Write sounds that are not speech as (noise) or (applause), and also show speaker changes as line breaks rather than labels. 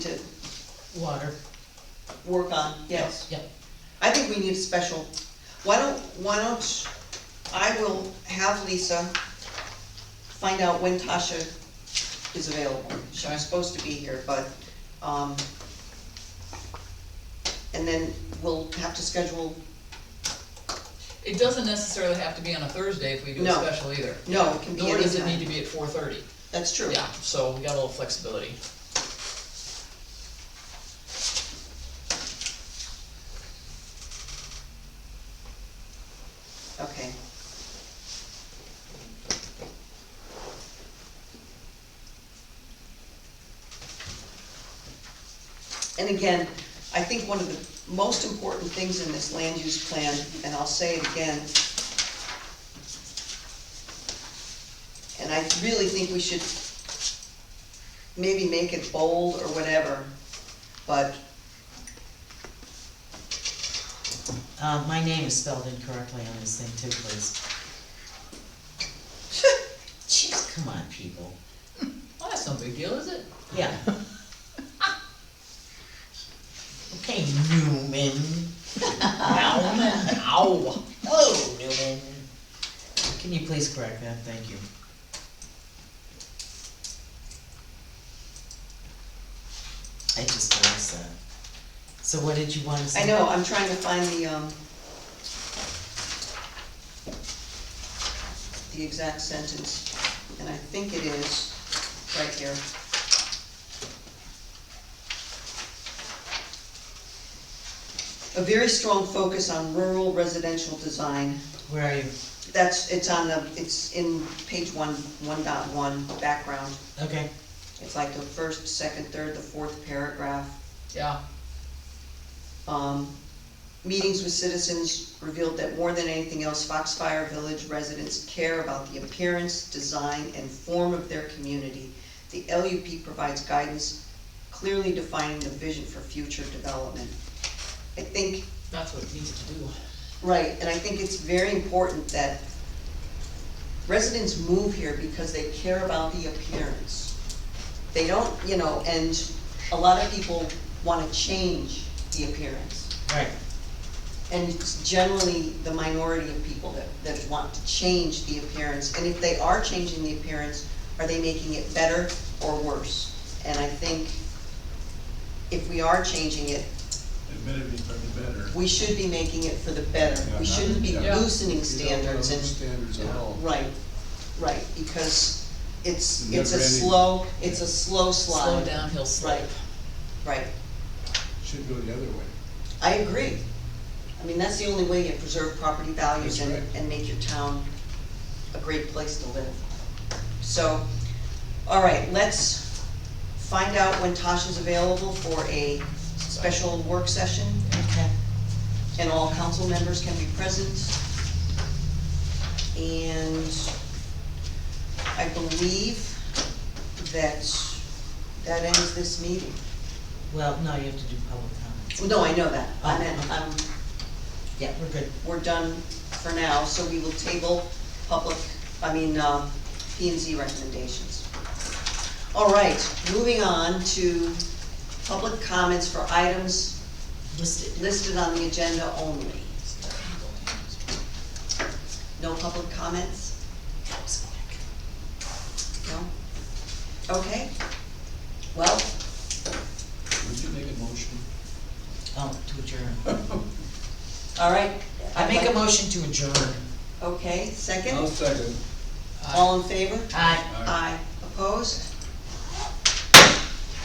water,
work on, yes.
Yep.
I think we need a special, why don't, why don't, I will have Lisa find out when Tasha is available. She was supposed to be here, but, um, and then we'll have to schedule,
It doesn't necessarily have to be on a Thursday if we do a
No.
special either.
no, it can be
Nor does it need to
anytime.
be at four thirty.
That's true.
Yeah, so we got a little flexibility.
Okay. And again, I think one of the most important things in this land use plan, and I'll say it again, and I really think we should maybe make it bold or whatever, but (laughs)
uh, my name is spelled incorrectly on this thing too, please. Jeez, come on, people,
Well, that's no big deal, is it?
yeah. (laughs) Okay, Newman,
Ow, ow.
oh, Newman. Can you please correct that, thank you. I just noticed that. So what did you wanna say?
I know, I'm trying to find the, um, the exact sentence, and I think it is right here. A very strong focus on rural residential design.
Where are you?
That's, it's on the, it's in page one, one dot one, background.
Okay,
It's like the first, second, third, the fourth paragraph.
Yeah,
um, meetings with citizens revealed that more than anything else, Foxfire Village residents care about the appearance, design, and form of their community. The LUP provides guidance clearly defining the vision for future development. I think,
that's what it needs to do.
right, and I think it's very important that residents move here because they care about the appearance. They don't, you know, and a lot of people wanna change the appearance.
right.
And it's generally the minority of people that, that want to change the appearance, and if they are changing the appearance, are they making it better or worse? And I think if we are changing it,
It better be for the better.
we should be making it for the better,
Yeah,
we
not-
shouldn't be
yeah.
loosening
You don't wanna
standards
lose
and,
Standards at all.
right, right, because it's,
It's
it's a
never-ending.
slow, it's a slow
Slow
slide,
downhill slope.
Right. right,
Should go the other way.
I agree. I mean, that's the only way you preserve property values
That's
and,
right.
and make your town a great place to live. So, all right, let's find out when Tasha's available for a special work session
Okay.
and all council members can be present. And I believe that that ends this meeting. Oh,
Well, no, you have to do public comments.
No, I know that. I meant, um,
Oh, okay.
I'm,
Yeah, we're good.
we're done for now, so we will table public, I mean, uh, P and Z recommendations. All right, moving on to public comments for items
Listed.
listed on the agenda only. No public comments?
That was quick.
No? Okay. Well,
Would you make a
(laughs)
motion?
Oh, to adjourn.
all right.
I make a
motion.
motion to adjourn.
Okay,
I'll
second?
second.
Uh,
All in favor?
Aye.
Aye.
Aye. Opposed?